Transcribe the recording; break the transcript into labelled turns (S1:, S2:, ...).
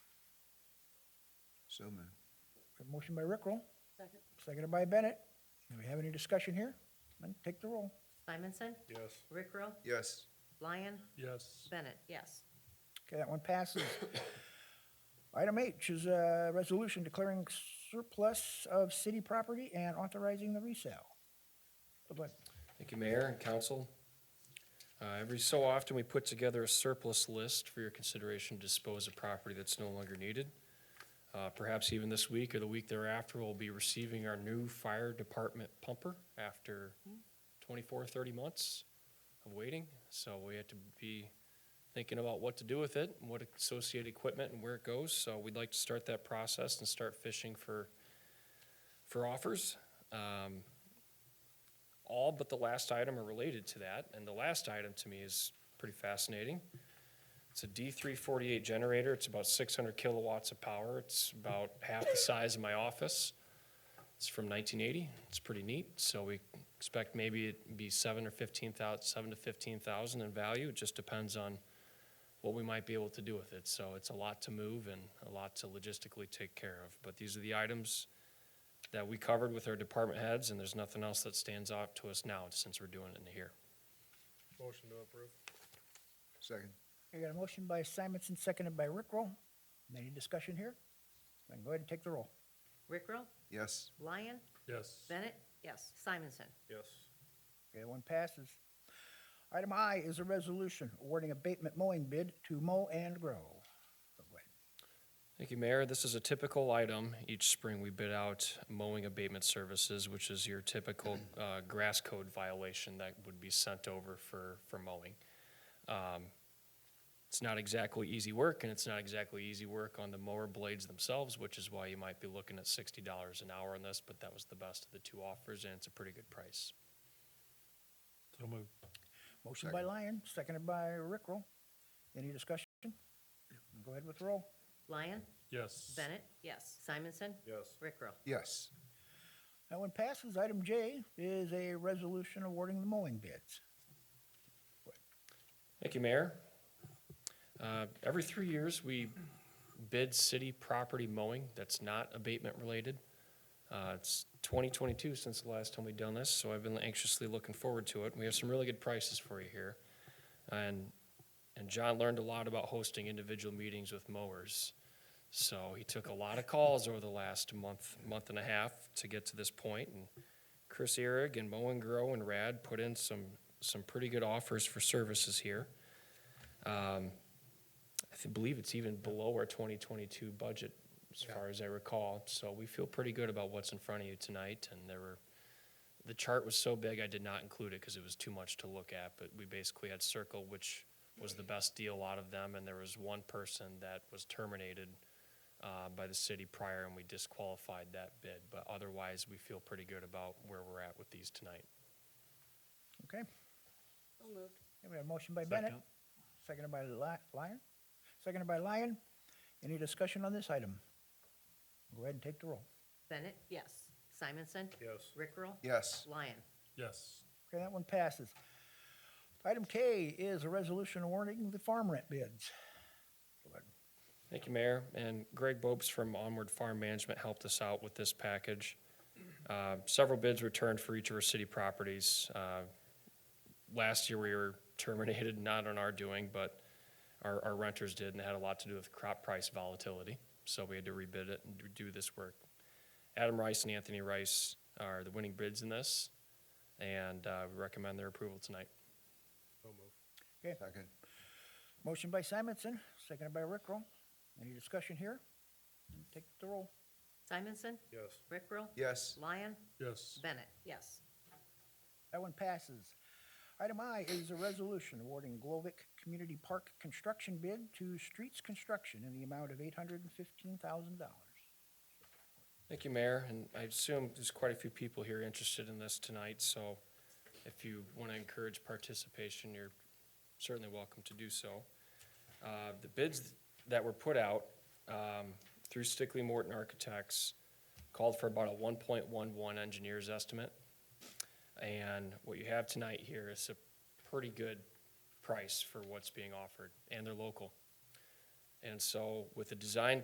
S1: So moved.
S2: A Motion by Rickrell,
S3: Second.
S2: seconded by Bennett. Do we have any discussion here? Then take the roll.
S3: Simonson?
S4: Yes.
S3: Rickrell?
S1: Yes.
S3: Lyon?
S4: Yes.
S3: Bennett? Yes.
S2: Okay, that one passes. Item H is a resolution declaring surplus of city property and authorizing the resale. Good luck.
S5: Thank you, Mayor and Council. Uh, Every so often, we put together a surplus list for your consideration to dispose of property that's no longer needed. Uh, Perhaps even this week or the week thereafter, we'll be receiving our new fire department pumper after 24, 30 months of waiting. So we had to be thinking about what to do with it, and what associated equipment and where it goes. So we'd like to start that process and start fishing for, for offers. Um, all but the last item are related to that, and the last item to me is pretty fascinating. It's a D348 generator, it's about 600 kilowatts of power, it's about half the size of my office. It's from 1980, it's pretty neat, so we expect maybe it'd be seven or 15,000, seven to 15,000 in value, it just depends on what we might be able to do with it, so it's a lot to move and a lot to logistically take care of, but these are the items that we covered with our department heads, and there's nothing else that stands out to us now since we're doing it in here.
S4: Motion to approve.
S1: Second.
S2: I got a motion by Simonson, seconded by Rickrell. Any discussion here? Then go ahead and take the roll.
S3: Rickrell?
S1: Yes.
S3: Lyon?
S4: Yes.
S3: Bennett? Yes. Simonson?
S4: Yes.
S2: Okay, one passes. Item I is a resolution awarding abatement mowing bid to Mow and Grow. Go ahead.
S5: Thank you, Mayor. This is a typical item. Each spring, we bid out mowing abatement services, which is your typical uh, grass code violation that would be sent over for, for mowing. Um, It's not exactly easy work, and it's not exactly easy work on the mower blades themselves, which is why you might be looking at sixty dollars an hour on this, but that was the best of the two offers, and it's a pretty good price.
S4: So moved.
S2: Motion by Lyon, seconded by Rickrell. Any discussion? Go ahead with the roll.
S3: Lyon?
S4: Yes.
S3: Bennett? Yes. Simonson?
S4: Yes.
S3: Rickrell?
S1: Yes.
S2: That one passes. Item J is a resolution awarding the mowing bids.
S5: Thank you, Mayor. Uh, Every three years, we bid city property mowing that's not abatement-related. Uh, It's 2022 since the last time we've done this, so I've been anxiously looking forward to it. We have some really good prices for you here. And, and John learned a lot about hosting individual meetings with mowers. So he took a lot of calls over the last month, month and a half to get to this point, and Chris Eric and Mow and Grow and Rad put in some, some pretty good offers for services here. Um, I th- believe it's even below our 2022 budget, as far as I recall. So we feel pretty good about what's in front of you tonight, and there were, the chart was so big, I did not include it because it was too much to look at, but we basically had Circle, which was the best deal out of them, and there was one person that was terminated uh, by the city prior, and we disqualified that bid. But otherwise, we feel pretty good about where we're at with these tonight.
S2: Okay,
S3: So moved.
S2: Here we have a motion by Bennett,
S4: Second.
S2: seconded by Li- Lyon, seconded by Lyon. Any discussion on this item? Go ahead and take the roll.
S3: Bennett? Yes. Simonson?
S4: Yes.
S3: Rickrell?
S1: Yes.
S3: Lyon?
S4: Yes.
S2: Okay, that one passes. Item K is a resolution awarding the farm rent bids.
S5: Thank you, Mayor. And Greg Bopes from Onward Farm Management helped us out with this package. Uh, Several bids returned for each of our city properties. Uh, Last year, we were terminated, not on our doing, but our our renters did, and it had a lot to do with crop price volatility. So we had to rebid it and do this work. Adam Rice and Anthony Rice are the winning bids in this, and uh, we recommend their approval tonight.
S4: So moved.
S1: Second.
S2: Motion by Simonson, seconded by Rickrell. Any discussion here? Take the roll.
S3: Simonson?
S4: Yes.
S3: Rickrell?
S1: Yes.
S3: Lyon?
S4: Yes.
S3: Bennett? Yes.
S2: That one passes. Item I is a resolution awarding Glovic Community Park construction bid to Streets Construction in the amount of eight hundred and fifteen thousand dollars.
S5: Thank you, Mayor, and I assume there's quite a few people here interested in this tonight, so if you want to encourage participation, you're certainly welcome to do so. Uh, The bids that were put out um, through Stickley Morton Architects called for about a 1.11 engineer's estimate. And what you have tonight here is a pretty good price for what's being offered, and they're local. And so with the design